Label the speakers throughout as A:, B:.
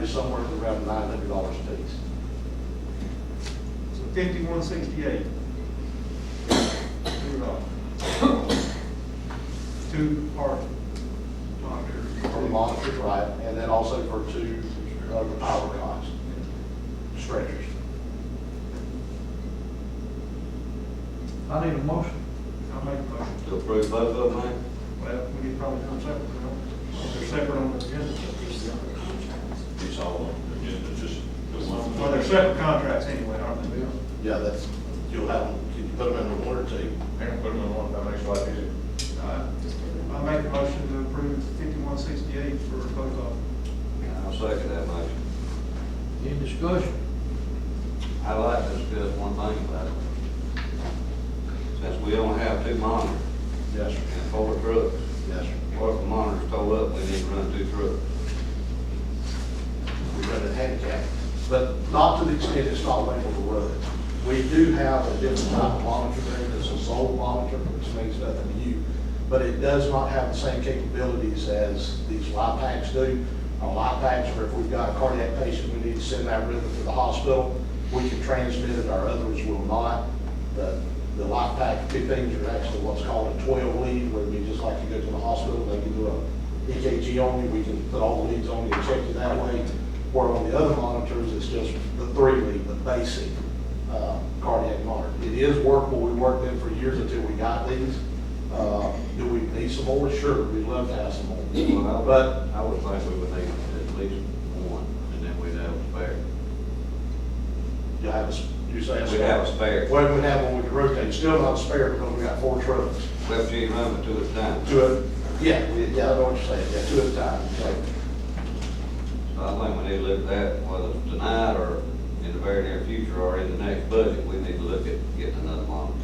A: is somewhere around nine hundred dollars a piece.
B: So fifty-one sixty-eight. Two dollars. Two part monitors.
A: For the monitor, right, and then also for two, uh, the power costs, stretchers.
C: I need a motion.
B: I'll make a motion.
D: To approve both of them, eh?
B: Well, we could probably come separate, you know, they're separate on the agenda.
E: It's all on the agenda, just the one.
B: Well, they're separate contracts anyway, aren't they?
A: Yeah, that's, you'll have, them- can you put them in one or two?
B: I make a motion to approve fifty-one sixty-eight for both of them.
D: I'll second that motion.
C: Any discussion?
D: I'd like to discuss one thing about it. Since we only have two monitors
A: Yes, sir.
D: and four trucks,
A: Yes, sir.
D: what if the monitor's tore up, we need to run two trucks?
A: we run it handicap, but not to the extent it's not labeled the road. We do have a different type of monitoring, it's a sole monitor, which means nothing to you, but it does not have the same capabilities as these light packs do. Our light packs, where if we've got a cardiac patient, we need to send that rhythm to the hospital, we can transmit it, our others will not. The, the light pack, two things are actually what's called a twelve lead, where we just like you go to the hospital, they can do a EKG on you, we can put all the leads on you and check you that way. Where on the other monitors, it's just the three lead, the basic, uh, cardiac monitor. It is workable, we worked them for years until we got these. Uh, do we need some more? Sure, we'd love to have some more.
D: Well, I would-
A: But-
D: I would think we would need at least one, and then we'd have a spare.
A: You have a, s- you say a
D: We'd have a
A: spare?
D: spare.
A: Well, we'd have one we could rotate, still not a spare because we got four trucks.
D: Left cheek run two at a time. So
A: To a, yeah, we- yeah, I know what you're saying, yeah, two at a time, so.
D: I think we need to look at that, whether it's tonight or in the very near future or in the next budget, we need to look at getting another monitor.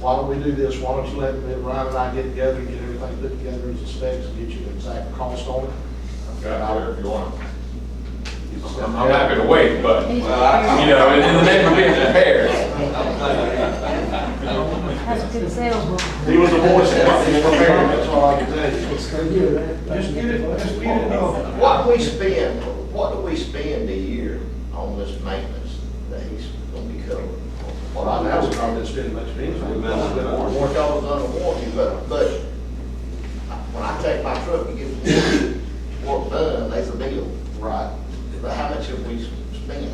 A: why don't we do this, why don't you let me- Ryan and I get together and get everything put together as a specs and get you an exact cost on it?
E: Got there if you want. I'm I'm happy to wait, but, you
D: Well, I-
E: know, and and the men are being prepared.
D: I don't think we need- I don't think we need-
F: That's a good salesman.
A: He was the voice that was prepared, that's all I can tell you.
B: Just get it, just get it off.
G: What we spend, what do we spend a year on this maintenance that he's gonna be covering?
A: Well, I know it's not been spending much of anything.
D: We've been on the board.
G: Warrant dollars under warranty, but, but when I take my truck and get the work done, there's a bill.
A: Right.
G: But how much have we spent?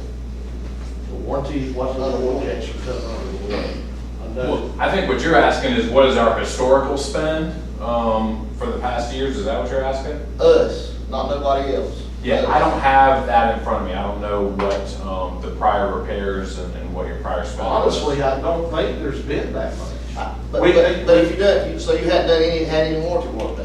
A: The warranty wasn't under warranty, actually, because of the warranty. I know.
E: Well, I think what you're asking is what is our historical spend, um, for the past years, is that what you're asking?
G: Us, not nobody else.
E: Yeah, I don't have that in front of me, I don't know what, um, the prior repairs and, and what your prior spend was.
A: Honestly, I don't think there's been that much.
G: I- But,
A: We-
G: but, but if you done, you- so you hadn't done any, had any warranty work done?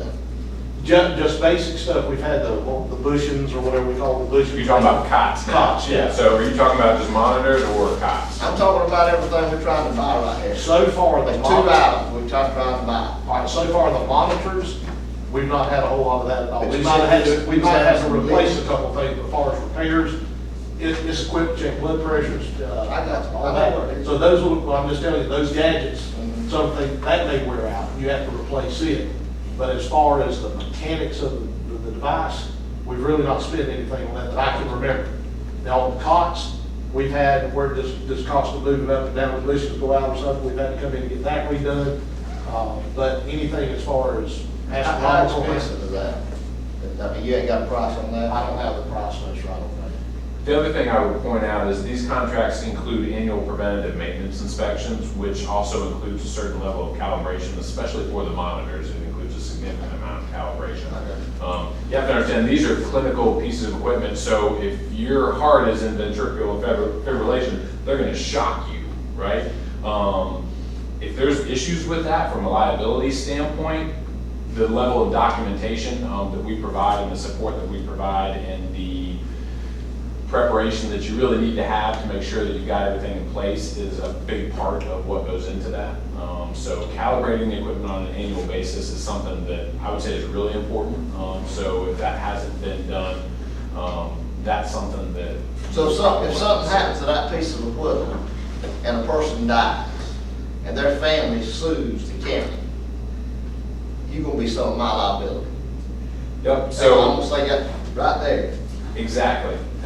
A: Just, just basic stuff, we've had the, the bushings or whatever we call the bushings.
E: You're talking about cots now?
A: Cots, yeah.
E: So are you talking about just monitors or cots?
G: I'm talking about everything we're trying to buy right here.
A: So far, the.
G: There's two
A: mon-
G: items we're trying trying to buy.
A: All right, so far, the monitors, we've not had a whole lot of that at all.
G: But
A: We
G: you
A: might have had,
G: said
A: to-
G: it's-
A: we might have had to
G: it's-
A: replace a couple things as far as repairs. It, it's equipped to check blood pressures, uh,
G: I got you.
A: all
G: I know what it
A: that.
G: is.
A: So those will, well, I'm just telling you, those gadgets,
G: Mhm.
A: something, that may wear out, you have to replace it. But as far as the mechanics of the, the device, we've really not spent anything on that that I can remember. Now, on the cots, we've had, where this, this cost of moving up and down, the bushings go out or something, we've had to come in and get that redone. Uh, But anything as far as
G: How how
A: astronomical,
G: expensive
A: I
G: is that? I mean, you ain't got a price on that?
A: don't have the price list right away.
E: The other thing I would point out is these contracts include annual preventative maintenance inspections, which also includes a certain level of calibration, especially for the monitors. It includes a significant amount of calibration. Um, You have to understand, these are clinical pieces of equipment, so if your heart is in ventricular fibr- fibrillation, they're gonna shock you, right? Um, If there's issues with that from a liability standpoint, the level of documentation um, that we provide and the support that we provide and the preparation that you really need to have to make sure that you've got everything in place is a big part of what goes into that. Um, So calibrating the equipment on an annual basis is something that I would say is really important. Um, So if that hasn't been done, um, that's something that.
G: So if something, if something happens to that piece of equipment and a person dies and their family sues the county, you gonna be some of my liability.
E: Yep,
G: So I'm
E: so.
G: gonna say that right there.
E: Exactly.